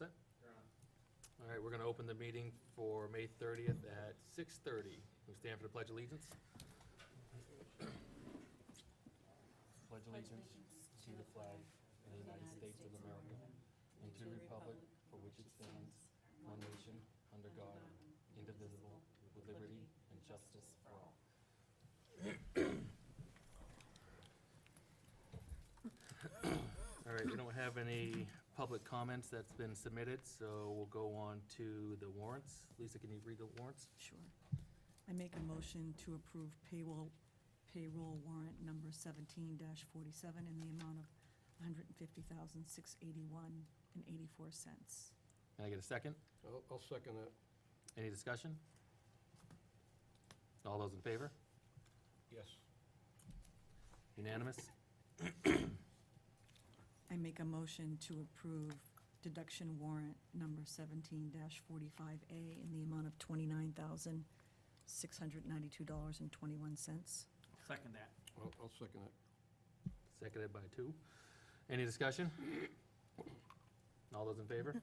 that? All right, we're going to open the meeting for May 30th at 6:30. We stand for the Pledge of Allegiance. Pledge allegiance to the flag of the United States of America and to the republic for which it stands, one nation, under God, indivisible, with liberty and justice for all. All right, we don't have any public comments that's been submitted, so we'll go on to the warrants. Lisa, can you read the warrants? Sure. I make a motion to approve payroll, payroll warrant number seventeen forty-seven in the amount of one hundred and fifty thousand, six eighty-one and eighty-four cents. Can I get a second? I'll, I'll second that. Any discussion? All those in favor? Yes. Unanimous? I make a motion to approve deduction warrant number seventeen forty-five A in the amount of twenty-nine thousand, six hundred ninety-two dollars and twenty-one cents. Second that. I'll, I'll second that. Seconded by two. Any discussion? All those in favor?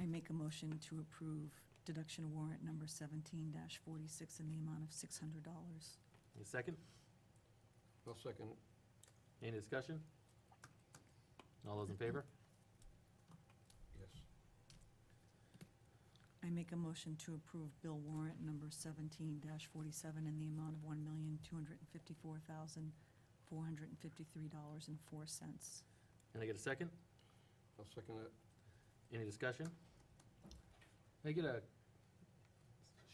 I make a motion to approve deduction warrant number seventeen forty-six in the amount of six hundred dollars. Any second? I'll second it. Any discussion? All those in favor? Yes. I make a motion to approve bill warrant number seventeen forty-seven in the amount of one million, two hundred and fifty-four thousand, four hundred and fifty-three dollars and four cents. Can I get a second? I'll second that. Any discussion? Can I get a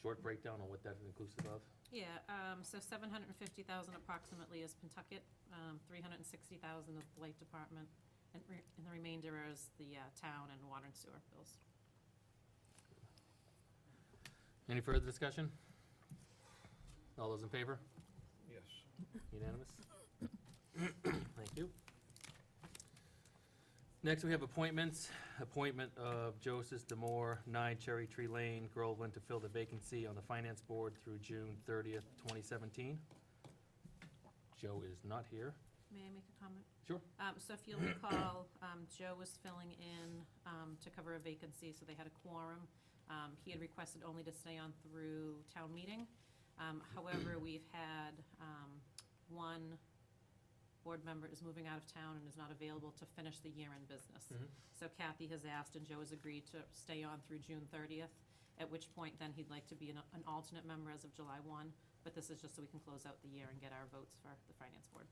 short breakdown on what that's inclusive of? Yeah, um, so seven hundred and fifty thousand approximately is Pentucket, um, three hundred and sixty thousand is the light department, and re- and the remainder is the, uh, town and water and sewer bills. Any further discussion? All those in favor? Yes. Unanimous? Thank you. Next, we have appointments. Appointment of Joseph Demore, 9 Cherry Tree Lane, Groveland, to fill the vacancy on the Finance Board through June 30th, 2017. Joe is not here. May I make a comment? Sure. Um, so if you'll recall, um, Joe was filling in, um, to cover a vacancy, so they had a quorum. Um, he had requested only to stay on through town meeting. Um, however, we've had, um, one board member is moving out of town and is not available to finish the year in business. Mhm. So Kathy has asked and Joe has agreed to stay on through June thirtieth, at which point then he'd like to be an, an alternate member as of July one. But this is just so we can close out the year and get our votes for the finance board.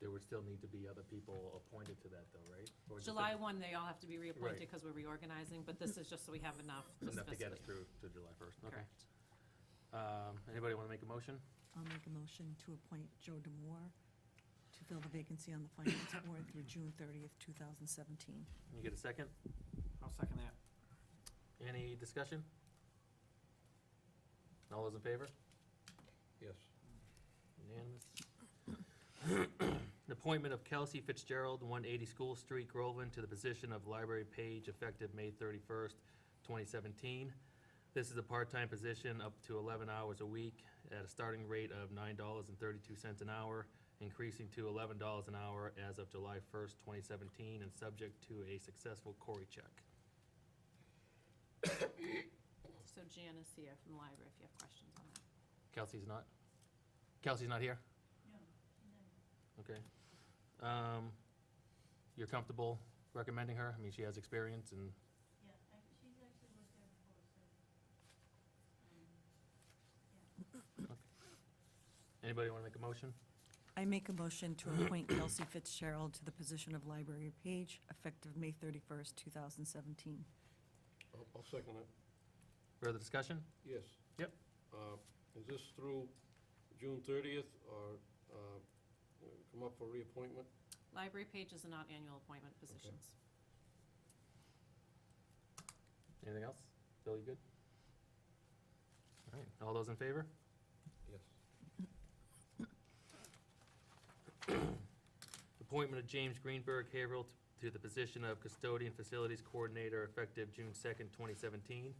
There would still need to be other people appointed to that, though, right? Or just July 1, they all have to be reappointed Right. because we're reorganizing, but this is just so we have enough this Enough to get fiscal us year. through to July 1st, okay. Correct. Um, Anybody want to make a motion? I'll make a motion to appoint Joe Demore to fill the vacancy on the finance board through June thirtieth, two thousand seventeen. Can you get a second? I'll second that. Any discussion? All those in favor? Yes. Unanimous. Appointment of Kelsey Fitzgerald, 180 School Street, Groveland, to the position of library page effective May 31st, 2017. This is a part-time position up to 11 hours a week at a starting rate of $9.32 an hour, increasing to $11 an hour as of July 1st, 2017, and subject to a successful Cory check. So Jan is here from the library if you have questions on that. Kelsey's not? Kelsey's not here? Okay. Um, You're comfortable recommending her? I mean, she has experience and, Yeah, I, she's actually worked there before, so, um, anybody want to make a motion? I make a motion to appoint Kelsey Fitzgerald to the position of library page effective May thirty-first, two thousand seventeen. I'll, I'll second it. Further discussion? Yes. Yep. Uh, Is this through June thirtieth or uh, come up for reappointment? Library pages are not annual appointment positions. Anything else? Bill, you good? All right, all those in favor? Yes. Appointment of James Greenberg Haverhill to the position of custodian facilities coordinator effective June 2nd, 2017.